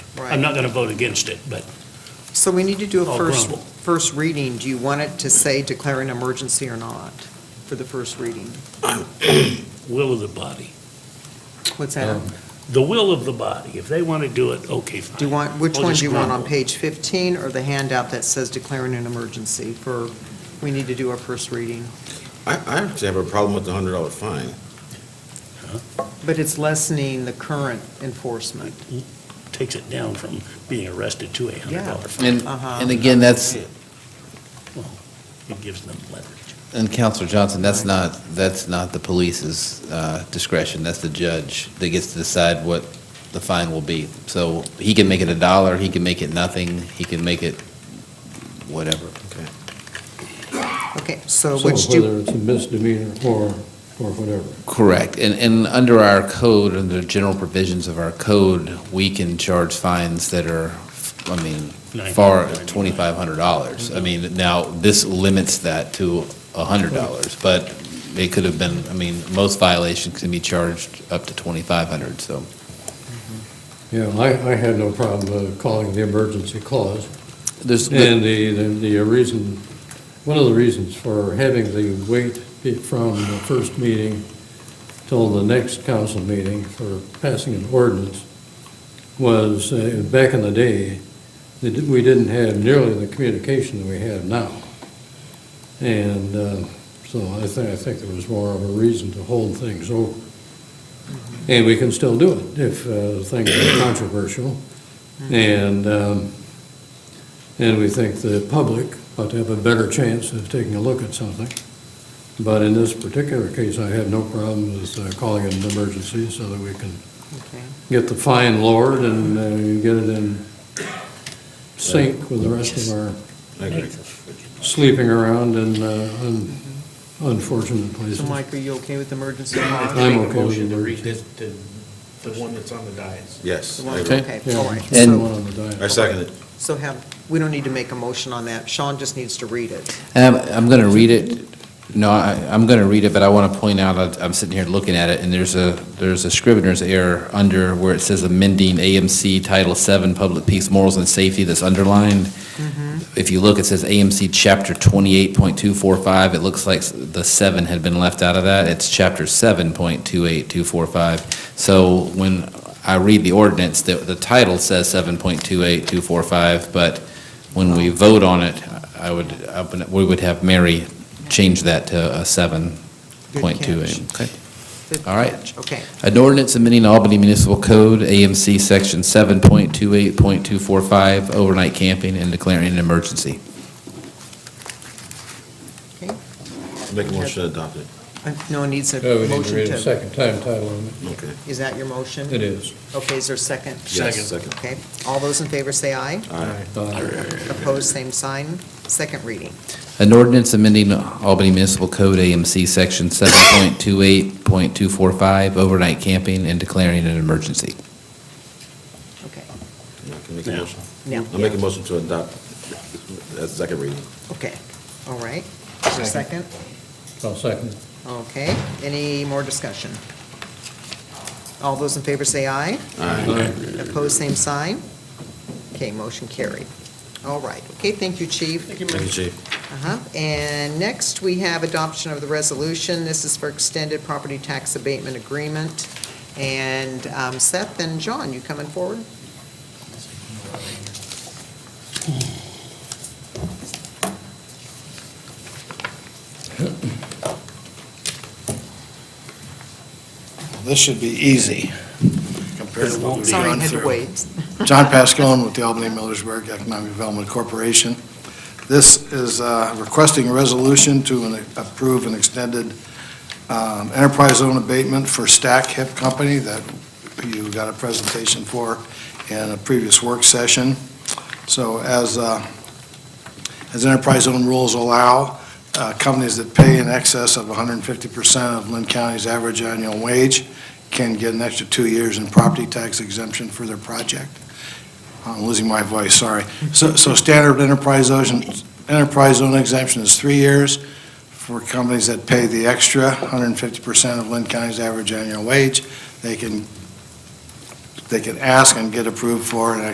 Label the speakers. Speaker 1: I'm
Speaker 2: Right.
Speaker 1: not going to vote against it, but
Speaker 2: So we need to do
Speaker 3: Oh,
Speaker 1: I'll
Speaker 2: a first,
Speaker 1: grumble.
Speaker 2: first reading. Do you want it to say declare an emergency or not for the first reading?
Speaker 1: will of the body.
Speaker 2: What's that?
Speaker 3: Um,
Speaker 1: The will of the body. If they want to do it, okay, fine.
Speaker 2: Do you want, which
Speaker 1: I'll
Speaker 2: one
Speaker 1: just
Speaker 2: do you want, on
Speaker 1: grumble.
Speaker 2: page 15 or the handout that says declaring an emergency for, we need to do our first reading?
Speaker 4: I, I actually have a problem with the hundred dollar fine.
Speaker 2: But it's lessening the current enforcement.
Speaker 1: Takes it down from being arrested to a hundred dollar fine.
Speaker 5: And,
Speaker 2: Uh-huh.
Speaker 5: and again, that's,
Speaker 1: It gives them leverage.
Speaker 5: and Counselor Johnson, that's
Speaker 2: Right.
Speaker 5: not, that's not the police's uh, discretion, that's the judge that gets to decide what the fine will be. So he can make it a dollar, he can make it nothing, he can make it whatever.
Speaker 2: Okay, so
Speaker 3: So
Speaker 2: Uh, which do,
Speaker 3: whether it's a misdemeanor or, or whatever.
Speaker 5: Correct. And, and under our code, under the general provisions of our code, we can charge fines that are, I mean, far, twenty-five hundred dollars. I mean, now, this limits that to a hundred dollars, but it could have been, I mean, most violations can be charged up to twenty-five hundred, so.
Speaker 3: Yeah, I, I had no problem uh, calling the emergency clause.
Speaker 5: There's,
Speaker 3: And the, the the uh, reason, one of the reasons for having the wait be- from the first meeting till the next council meeting for passing an ordinance was, uh, back in the day, they did- we didn't have nearly the communication that we have now. And uh, so I think, I think there was more of a reason to hold things over. And we can still do it if uh, things are controversial.
Speaker 2: Mm-hmm.
Speaker 3: And, um, and we think the public ought to have a better chance of taking a look at something. But in this particular case, I have no problem with uh, calling it an emergency so that we can
Speaker 2: okay.
Speaker 3: get the fine lowered and uh, get it in sync with the rest of our
Speaker 4: I agree.
Speaker 3: sleeping around in uh, un- unfortunate places.
Speaker 2: so Mike, are you okay with emergency? or not?
Speaker 3: I'm okay with the
Speaker 6: read this, the, the one that's on the dais.
Speaker 4: Yes,
Speaker 2: The
Speaker 4: I
Speaker 2: one-
Speaker 4: agree.
Speaker 2: Okay,
Speaker 3: Yeah,
Speaker 2: all right.
Speaker 3: the
Speaker 5: And-
Speaker 3: one
Speaker 2: So,
Speaker 3: on the diet.
Speaker 4: I second it.
Speaker 2: so have, we don't need to make a motion on that. Sean just needs to read it.
Speaker 5: Um, I'm going to read it. No, I, I'm going to read it, but I want to point out, I- I'm sitting here looking at it, and there's a, there's a scrivener's error under where it says amending AMC Title VII, Public Peace, Morals, and Safety that's underlined.
Speaker 2: Mm-hmm.
Speaker 5: If you look, it says AMC Chapter 28.245. It looks like the seven had been left out of that. It's Chapter 7.28245. So when I read the ordinance, the, the title says 7.28245, but when we vote on it, I would, I would- we would have Mary change that to a seven
Speaker 2: Good
Speaker 5: point two
Speaker 2: catch.
Speaker 5: eight. Okay.
Speaker 2: Good
Speaker 5: All right.
Speaker 2: catch. Okay,
Speaker 5: An ordinance amending Albany Municipal Code, AMC Section seven point two eight point two four five, overnight camping and declaring an emergency.
Speaker 4: Make a motion to adopt it.
Speaker 2: Uh, no one needs a
Speaker 3: Oh, we need to
Speaker 2: motion
Speaker 3: read a
Speaker 2: to,
Speaker 3: second time title on
Speaker 4: Okay.
Speaker 2: is that your motion?
Speaker 3: it. It is.
Speaker 2: Okay, is there a second?
Speaker 4: Yes, second.
Speaker 2: Okay, all those in favor say aye.
Speaker 4: Aye.
Speaker 3: Uh,
Speaker 2: Opposed, same sign. Second reading.
Speaker 5: An ordinance amending Albany Municipal Code, AMC Section seven point two eight point two four five, overnight camping and declaring an emergency.
Speaker 2: Okay,
Speaker 4: I can make a
Speaker 1: Yeah.
Speaker 4: motion.
Speaker 2: now,
Speaker 4: I'll make a motion to adopt, that's second reading.
Speaker 2: okay, all right. Is there a second?
Speaker 3: I'll second it.
Speaker 2: Okay, any more discussion? All those in favor say aye.
Speaker 4: Aye.
Speaker 2: Opposed, same sign. Okay, motion carried. All right, okay, thank you, Chief.
Speaker 4: Thank you, Chief.
Speaker 2: Uh-huh. And next, we have adoption of the resolution. This is for extended property tax abatement agreement. And um, Seth and John, you coming forward?
Speaker 7: This should be easy compared to what we've
Speaker 2: Sorry, I
Speaker 7: gone
Speaker 2: had to
Speaker 7: through.
Speaker 2: wait.
Speaker 7: John Pascone with the Albany Millersburg Economic Development Corporation. This is uh, requesting a resolution to an- approve an extended um, enterprise zone abatement for Stack Hip Company that you got a presentation for in a previous work session. So as, uh, as enterprise zone rules allow, uh, companies that pay in excess of 150% of Lynn County's average annual wage can get an extra two years in property tax exemption for their project. I'm losing my voice, sorry. So, so standard enterprise zone, enterprise zone exemption is three years for companies that pay the extra 150% of Lynn County's average annual wage. They can, they can ask and get approved for an